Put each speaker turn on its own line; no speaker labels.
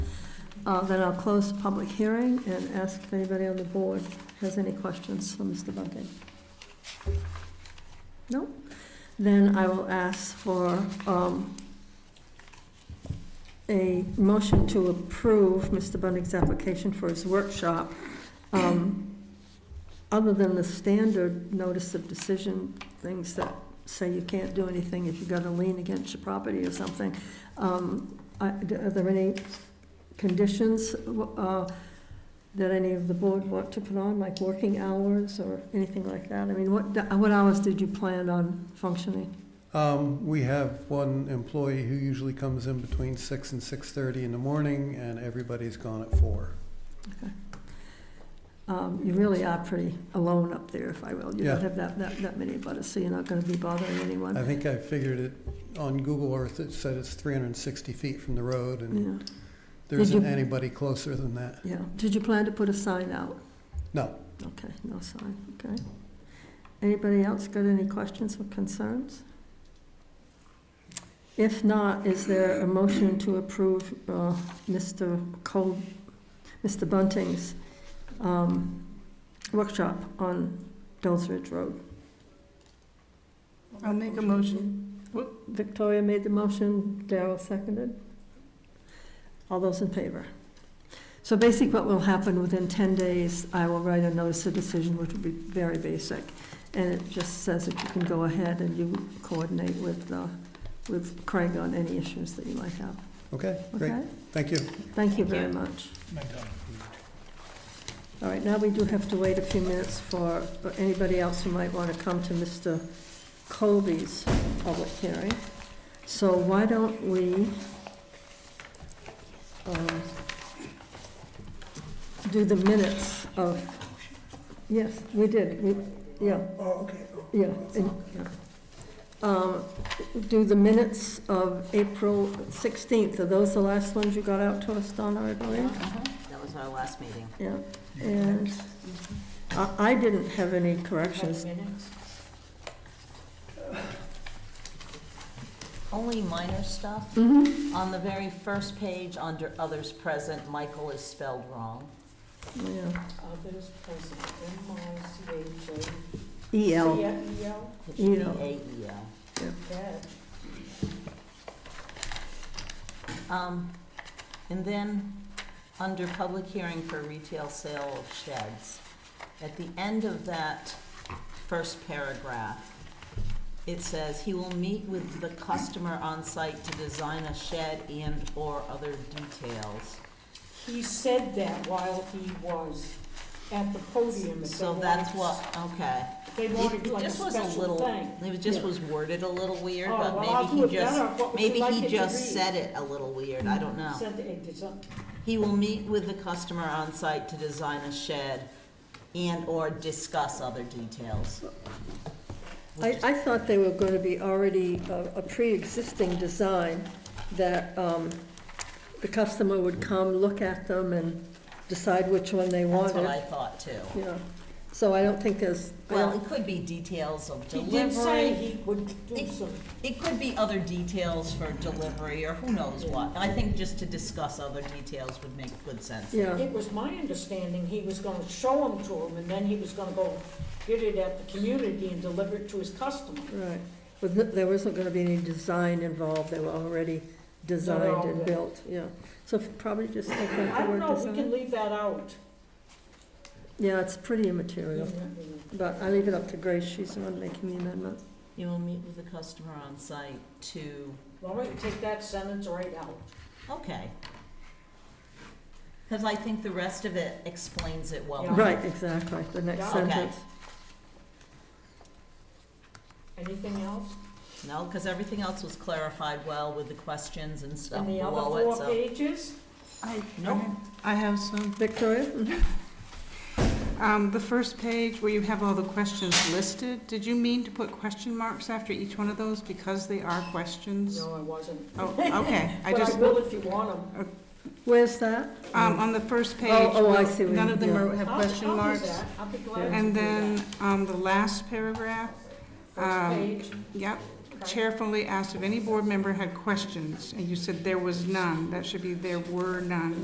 Uh, Then I'll close the public hearing and ask if anybody on the board has any questions for Mr. Bunting. No? Then I will ask for um, a motion to approve Mr. Bunting's application for his workshop. um, Other than the standard notice of decision, things that say you can't do anything if you've got a lien against your property or something. um, I- Are there any conditions uh, that any of the board want to put on, like working hours or anything like that? I mean, what, what hours did you plan on functioning?
Um, we have one employee who usually comes in between six and six-thirty in the morning, and everybody's gone at four.
Um, You really are pretty alone up there, if I will. You
Yeah.
don't have that, that, that many butters, so you're not gonna be bothering
I
anyone.
think I figured it, on Google Earth, it said it's three hundred and sixty feet from the road, and
Yeah,
there
Did you-
isn't anybody closer than that.
yeah. Did you plan to put a sign out?
No,
Okay, no sign, okay. Anybody else got any questions or concerns? If not, is there a motion to approve uh, Mr. Cole, Mr. Bunting's um, workshop on Dulles Ridge Road?
I'll make a motion.
Victoria made the motion, Daryl seconded. All those in favor? So basically what will happen, within 10 days, I will write a notice of decision, which will be very basic. And it just says that you can go ahead and you coordinate with, uh, with Craig on any issues that you might have.
okay, great,
Okay?
thank you.
Thank you very much. All right, now we do have to wait a few minutes for for anybody else who might want to come to Mr. Colby's public hearing. So why don't we um, do the minutes of, yes, we did, we, yeah. Oh, okay. Yeah, and- yeah. Um, Do the minutes of April 16th, are those the last ones you got out to us, Donna, I believe?
That was our last meeting.
Yeah, and I, I didn't have any corrections.
Only minor stuff.
Mhm.
On the very first page, under others present, Michael is spelled wrong.
Yeah,
Others present, M I C H A.
EL,
Yeah, E L,
It should be
Elo.
A-E-L.
that.
Um, And then, under public hearing for retail sale of sheds, at the end of that first paragraph, it says, "He will meet with the customer on site to design a shed and/or other details."
He said that while he was at the podium. if they
So that's what,
wanted-
okay.
They wanted like a
This was a
special
little,
thing.
it was- just
Yeah.
was worded a little weird,
Oh,
but
well, I'll do
maybe
it
he just,
better. What would you
maybe
like it
he
to
just
read?
said it a little weird, I don't know.
Said it did some-
He will meet with the customer on site to design a shed and/or discuss other details.
I, I thought they were gonna be already a, a pre-existing design that, um, the customer would come, look at them and decide which one they
That's what
wanted.
I thought too.
Yeah, so I don't think there's, I
Well,
don't,
it could be details of
He did say
delivery,
he would do
It-
some,
it could be other details for delivery or who knows what. I think just to discuss other details would make good sense.
yeah,
it was my understanding he was gonna show them to him, and then he was gonna go get it at the community and deliver it to his customer.
right. But th- there wasn't gonna be any design involved, they were already designed and
all-
built, yeah. So probably just take out the
I don't
word
know, we can
design.
leave that out.
Yeah, it's pretty immaterial. But I leave it up to Grace, she's the one making the amendment.
You will meet with the customer on site to,
All right, take that sentence right out.
okay. Because I think the rest of it explains it well.
Yeah.
Right, exactly, the next
Yeah.
Okay.
sentence.
Anything else?
No, because everything else was clarified well with the uh, questions and stuff
And the other
below it,
four
so.
pages?
I,
Nope.
I have some.
Victoria? Mhm.
Um, the first page where you have all the questions listed, did you mean to put question marks after each one of those because they are questions?
No, I wasn't.
Oh, okay, I
But I
just,
will if you want them.
Where's that?
um, on the first page.
oh, I see what
None
you-
of them are- have
I'll-
question
I'll do
marks.
that. I'll be glad to do
And then,
that.
um, the last paragraph, um,
First page.
yep,
okay.
Chairfully asked if any board member had questions, and you said there was none. That should be there were none.